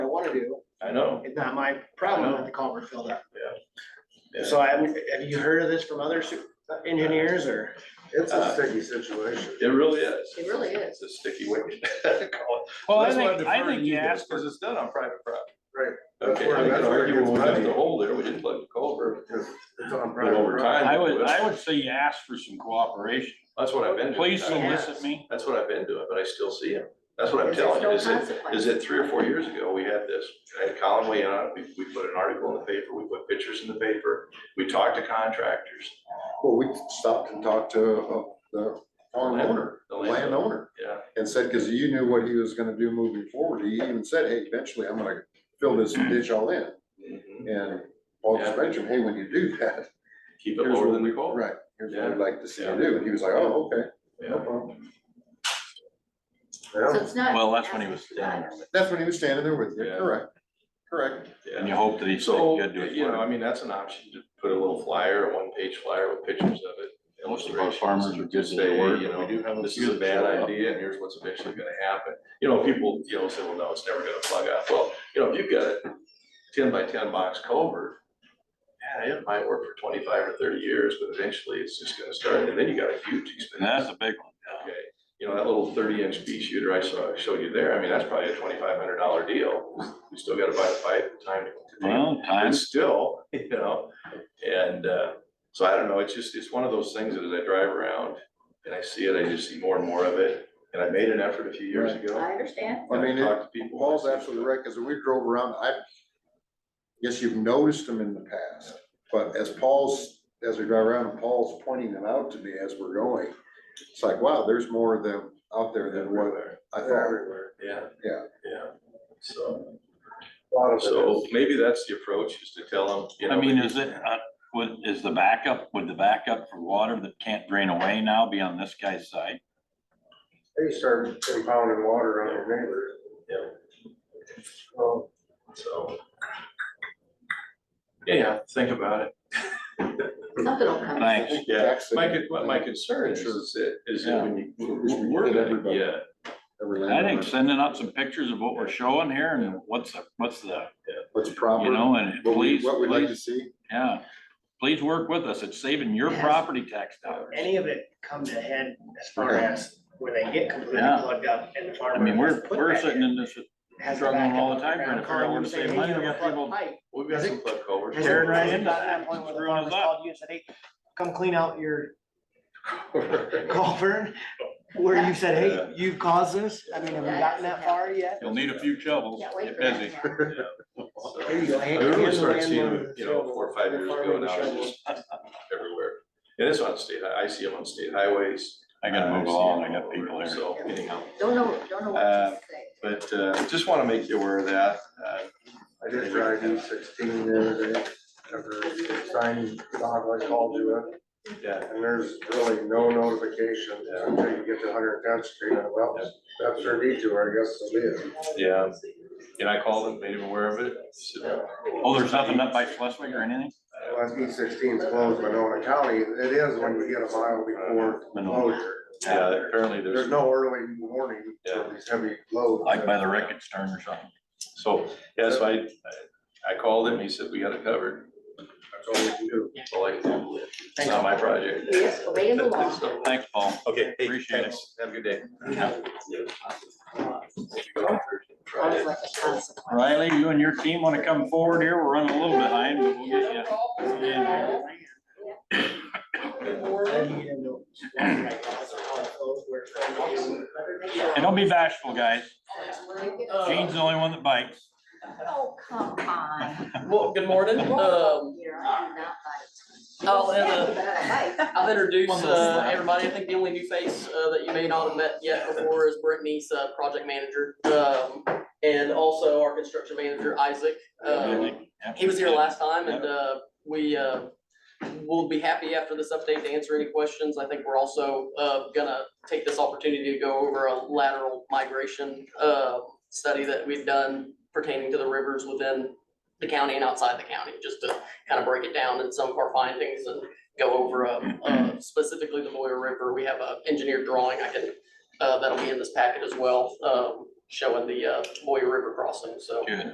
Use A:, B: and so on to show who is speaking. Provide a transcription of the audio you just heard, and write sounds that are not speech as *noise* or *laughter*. A: wanna do,
B: I know.
A: it's not my problem that the culvert filled up.
B: Yeah.
A: So I, haven't- have you heard of this from other su- engineers or?
C: It's
B: Uh,
C: a sticky situation.
B: It really is.
D: It really is.
B: It's a sticky wicket. *laughs* Well,
E: Well, I think, I think you asked,
B: Because it's done on private property.
C: Right. That's
B: Okay,
C: where-
B: I
C: that's
B: can
C: where it
B: argue when we
C: gets
B: dug the
C: muddy.
B: hole there, we didn't plug the culvert,
C: Because it's on
B: but
C: private
B: over
C: property.
B: time.
E: I would, I would say you asked for some cooperation.
B: That's what I've been doing.
E: Please solicit me.
B: That's what I've been doing, but I still see him. That's what I'm
D: Because
B: telling
D: there's
B: you,
D: no
B: is it,
D: consequence.
B: is it three or four years ago, we had this, I had Colin weigh in on it, we, we put an article in the paper, we put pictures in the paper, we talked to contractors.
C: Well, we stopped and talked to uh, the homeowner,
B: The
C: the landowner.
B: Yeah.
C: And said, because you knew what he was gonna do moving forward. He even said, hey, eventually I'm gonna fill this ditch all in.
B: Mhm.
C: And Paul just
B: Mm-hmm. Yeah.
C: mentioned, hey, when you do that. *laughs*
B: Keep it
C: here's
B: lower
C: what
B: than the
C: we-
B: culvert.
C: Right, here's what I'd like to see you do. And he was like, oh, okay, no
B: Yeah.
C: problem.
D: So
C: Yeah,
D: it's not.
E: Well, that's when he was standing there,
C: that's when he was standing there with you,
B: Yeah.
C: correct, correct.
E: and
B: Yeah.
E: you hope that he said
B: So,
E: good to his
B: you know, I
E: word.
B: mean, that's an option to put a little flyer, a one-page flyer with pictures of it.
E: Most of our farmers are good to their
B: Say,
E: word,
B: you
E: but we
B: know,
E: do have a
B: This
E: few
B: is a
E: that
B: bad
E: show up.
B: idea and here's what's eventually gonna happen. You know, people, you know, say, well, no, it's never gonna plug up. Well, you know, if you've got a ten by ten box culvert, yeah, it might work for twenty-five or thirty years, but eventually it's just gonna start and then you got a huge
E: And
B: expense.
E: that's a big one.
B: Okay, you know, that little thirty-inch pea shooter I saw, showed you there, I mean, that's probably a twenty-five hundred dollar deal. We still gotta buy the pipe, time to.
E: Well,
B: But
E: times,
B: still, *laughs* you know, and, uh, so I don't know, it's just, it's one of those things that as I drive around and I see it, I just see more and more of it. And I made an effort a few years ago.
D: I understand.
C: I
B: and
C: mean, it,
B: talked to people.
C: Paul's absolutely right, because we drove around, I guess you've noticed them in the past, but as Paul's, as we drive around, Paul's pointing them out to me as we're going. It's like, wow, there's more of them out there than what I thought.
B: Yeah.
C: Yeah.
B: Yeah, so,
C: Lot of
B: so maybe that's the approach, is to tell them, you know.
E: I mean, is it, uh, would, is the backup, would the backup for water that can't drain away now be on this guy's side?
F: They start impounding water on their neighbors.
B: Yeah.
F: Well,
B: So. Yeah, think about it.
D: Something will come.
E: Thanks.
B: Yeah, my, con- my- my concern is, is that, is that when you, we're- we're gonna, yeah,
E: I think sending out some pictures of what we're showing here and what's, the what's the,
C: What's
E: you
C: proper,
E: know, and
C: what we,
E: please,
C: what we'd like to
E: please,
C: see.
E: yeah. Please work with us. It's saving your
A: Yes.
E: property tax dollars.
A: Any of it come to head as far
C: Okay.
A: as where they get completely
E: Yeah.
A: plugged up and the farmer.
E: I mean,
A: has
E: we're,
A: to put
E: we're
A: that
E: sitting in this
A: has to
E: struggling
A: back
E: all
A: up
E: the time trying
A: ground,
E: to figure out where
A: call
E: to save
A: them
E: money.
A: and
E: We
A: say,
E: got
A: "Hey, you have a plugged
E: people-
A: pipe."
B: we've got some flood covers.
A: Has
E: Tearing
A: there
E: right
A: ever
E: into
A: gotten to
E: it.
A: that point where the
E: Screwing us
A: farmer's
E: up.
A: called you and said, hey, come clean out your *laughs* culvert? Where you said, hey, you caused this? I mean, have we gotten that far yet?
E: You'll need a few shovels.
D: Can't wait
E: Get
D: for that.
E: busy.
D: yeah.
B: So-
A: There you go.
B: I
A: hand-
B: remember
A: hand the
B: starting seeing
A: landlord
B: them,
A: the
B: you know,
A: shovel.
B: four or five years ago
A: Farming
B: now, it's
A: shovel.
B: just everywhere. And it's on state, I I see them on state highways.
E: I gotta move
B: see
E: along. I
B: them
E: got
B: all
E: people
B: over,
E: here.
B: So anyhow,
D: Don't know, don't know what
B: Uh,
D: to say.
B: but uh, just want to make you aware of that. Uh,
F: I did drive E sixteen the other day, after signing dog, I called you in,
B: Yeah,
F: and there's really no notification until you get to Hundred Tenth Street, and well, that's their detour, I guess, so be it.
B: yeah. And I called and made him aware of it. So,
E: Oh, there's nothing up by Schleswig or anything?
F: Well, E sixteen's closed by Nona County, it is when you get a mile before closure.
B: Yeah, apparently
F: There's
B: there's,
F: no early warning for these heavy loads.
E: Like by the wreckage turn or something?
B: so, yeah, so I, I- I called him, he said, we got it covered.
F: That's all we can do.
B: That's all I can do. It's
A: Thanks.
B: not my project.
D: Yes, obey the law.
B: So,
E: Thanks, Paul.
B: Okay, hey,
E: Appreciate it.
B: thanks. Have a good day.
D: Sounds like a consequence.
E: Riley, you and your team wanna come forward here? We're running a little behind, but we'll get you. Yeah.
A: I need to know right now, so how it flows, where it's from.
E: *clears throat* And don't be bashful, guys. Gene's
D: Oh,
E: the only one that bites.
D: come on.
G: Well, good morning. Um,
D: Here, I do not bite.
G: I'll have a-
D: Bite.
G: I'll introduce,
D: One little
G: uh,
D: slap.
G: everybody. I think the only new face, uh, that you may not have met yet before is Brittany's, uh, project manager. Um, and also our construction manager, Isaac. Um, he was here last time and, uh, we, uh, will be happy after this update to answer any questions. I think we're also, uh, gonna take this opportunity to go over a lateral migration, uh, study that we've done pertaining to the rivers within the county and outside the county, just to kind of break it down and some of our findings and go over, uh, uh, specifically the Moyer River. We have a engineered drawing I can, uh, that'll be in this packet as well, um, showing the, uh, Moyer River crossing, so.
E: Good.